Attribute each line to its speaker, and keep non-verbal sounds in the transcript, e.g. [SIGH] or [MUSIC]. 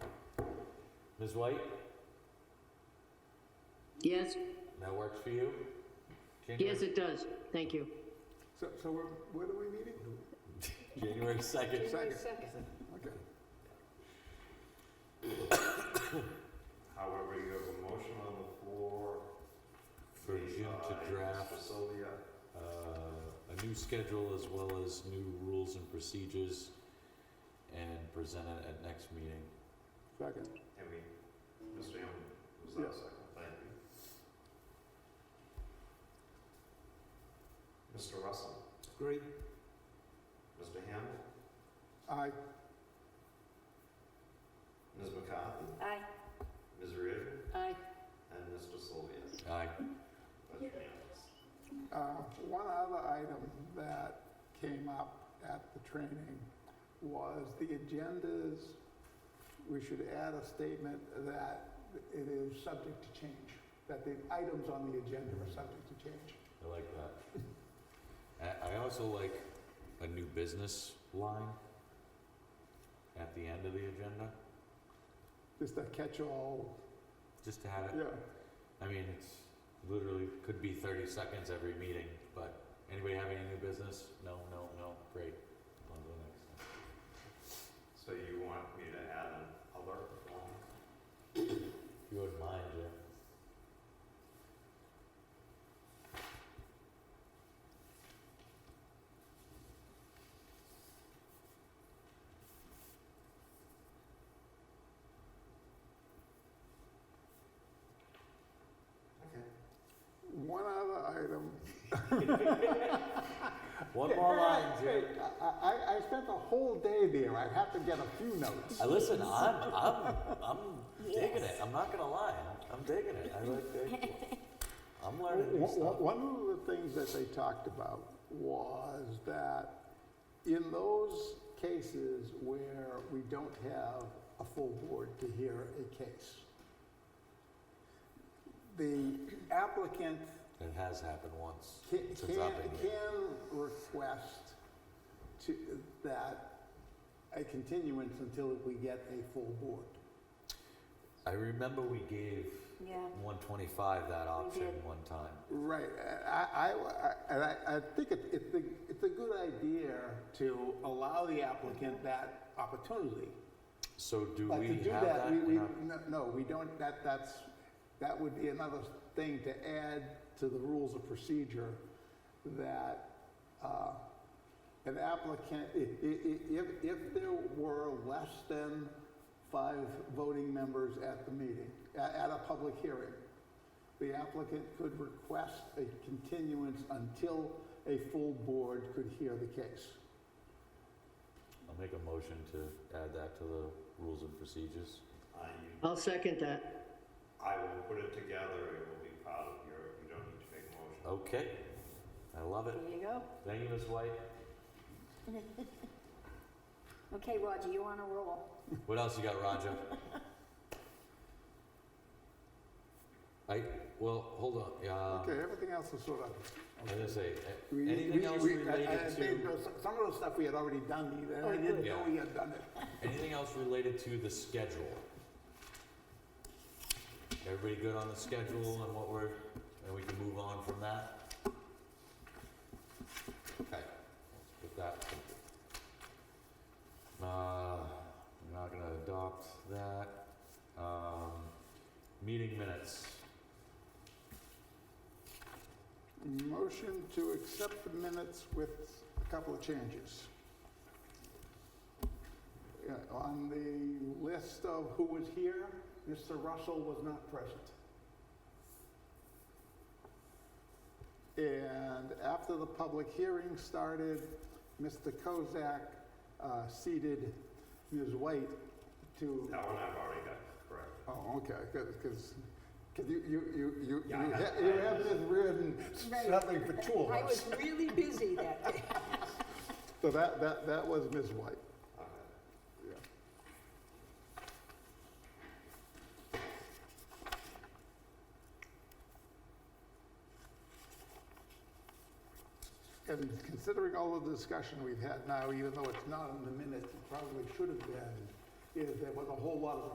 Speaker 1: Ms. White,
Speaker 2: Yes,
Speaker 1: that works for you? January-
Speaker 2: yes, it does. Thank you.
Speaker 3: So, so we're, what are we meeting?
Speaker 1: [LAUGHS] January second.
Speaker 3: Second. Okay.
Speaker 4: However, you have a motion on the floor.
Speaker 1: For Jim to
Speaker 4: made by
Speaker 1: draft.
Speaker 4: Mr. Sylvia,
Speaker 1: uh, a new schedule as well as new rules and procedures and present it at next meeting.
Speaker 3: Second.
Speaker 4: and we, Mr. Hammond, was that
Speaker 3: Yes.
Speaker 4: second? Thank you. Mr. Russell,
Speaker 3: Agree.
Speaker 4: Mr. Hammond,
Speaker 3: Aye.
Speaker 4: Ms. McCarthy,
Speaker 2: Aye.
Speaker 4: Ms. Reardon,
Speaker 2: Aye.
Speaker 4: and Mr. Sylvia.
Speaker 1: Aye.
Speaker 4: That's unanimous.
Speaker 3: Uh, One other item that came up at the training was the agendas, we should add a statement that it is subject to change, that the items on the agenda are subject to change.
Speaker 1: I like that. I, I also like a new business line at the end of the agenda,
Speaker 3: Just a catch-all,
Speaker 1: just to have it,
Speaker 3: yeah,
Speaker 1: I mean, it's literally, could be thirty seconds every meeting, but anybody have any new business? No, no, no, great. On to the next.
Speaker 4: So you want me to add an alert form?
Speaker 1: If you wouldn't mind, Jim.
Speaker 4: Okay.
Speaker 3: one other item.
Speaker 1: One more line, Jim.
Speaker 3: I, I, I spent the whole day there, I have to get a few notes.
Speaker 1: I listen. I'm I'm I'm digging it. I'm not gonna lie. I'm digging it. I like the. I'm learning new
Speaker 3: One
Speaker 1: stuff.
Speaker 3: one of the things that they talked about was that in those cases where we don't have a full board to hear a case, the applicant
Speaker 1: It has happened once
Speaker 3: can,
Speaker 1: since
Speaker 3: can,
Speaker 1: I've been here.
Speaker 3: can request to, that a continuance until we get a full board.
Speaker 1: I remember we gave
Speaker 2: Yeah.
Speaker 1: 125 that option
Speaker 2: did.
Speaker 1: one time.
Speaker 3: Right, I, I, I, I- I think it- it's, a- it's a good idea to allow the applicant that opportunity.
Speaker 1: So do
Speaker 3: But
Speaker 1: we
Speaker 3: to do
Speaker 1: have
Speaker 3: that, we, we,
Speaker 1: in our-
Speaker 3: no- no, we don't, that, that's, that would be another thing to add to the rules of procedure that, uh, an applicant, i- i- i- if, if there were less than five voting members at the meeting, at, at a public hearing, the applicant could request a continuance until a full board could hear the case.
Speaker 1: I'll make a motion to add that to the rules and procedures.
Speaker 4: Uh, you,
Speaker 2: I'll second that.
Speaker 4: I will put it together, it will be part of your, you don't need to make a motion.
Speaker 3: Oh.
Speaker 1: Okay, I love it.
Speaker 5: There you go.
Speaker 1: Thank you, Ms. White.
Speaker 5: [LAUGHS] Okay, Roger, you on a roll.
Speaker 1: [LAUGHS] What else you got,
Speaker 5: [LAUGHS]
Speaker 1: Roger? I well, hold on. Yeah.
Speaker 3: Okay, everything else is sort of.
Speaker 1: I was gonna say, a-
Speaker 3: We-
Speaker 1: anything
Speaker 3: we-
Speaker 1: else
Speaker 3: we- I- I- I
Speaker 1: related
Speaker 3: think
Speaker 1: to,
Speaker 3: those- Some of the stuff we had already done, we- and I didn't know
Speaker 1: Yeah.
Speaker 3: we had done it.
Speaker 1: anything else related to the schedule? Everybody good on the schedule and what we're, and we can move on from that? Okay, let's get that. Uh, we're not gonna adopt that. Um, meeting minutes.
Speaker 3: Motion to accept the minutes with a couple of changes. Yeah, On the list of who was here, Mr. Russell was not present. And after the public hearing started, Mr. Kozak uh, seated Ms. White to
Speaker 4: That one I've already got corrected.
Speaker 3: Oh, okay, because, because you, you, you, you, you
Speaker 4: Yeah, I
Speaker 3: ha-
Speaker 4: have-
Speaker 3: you
Speaker 4: I
Speaker 3: have
Speaker 4: have-
Speaker 3: this written something for two of
Speaker 5: I
Speaker 3: us.
Speaker 5: was really busy that day.
Speaker 3: So that, that, that was Ms. White.
Speaker 4: Okay.
Speaker 3: Yeah. And considering all of the discussion we've had now, even though it's not in the minutes, it probably should have been, is there was a whole lot of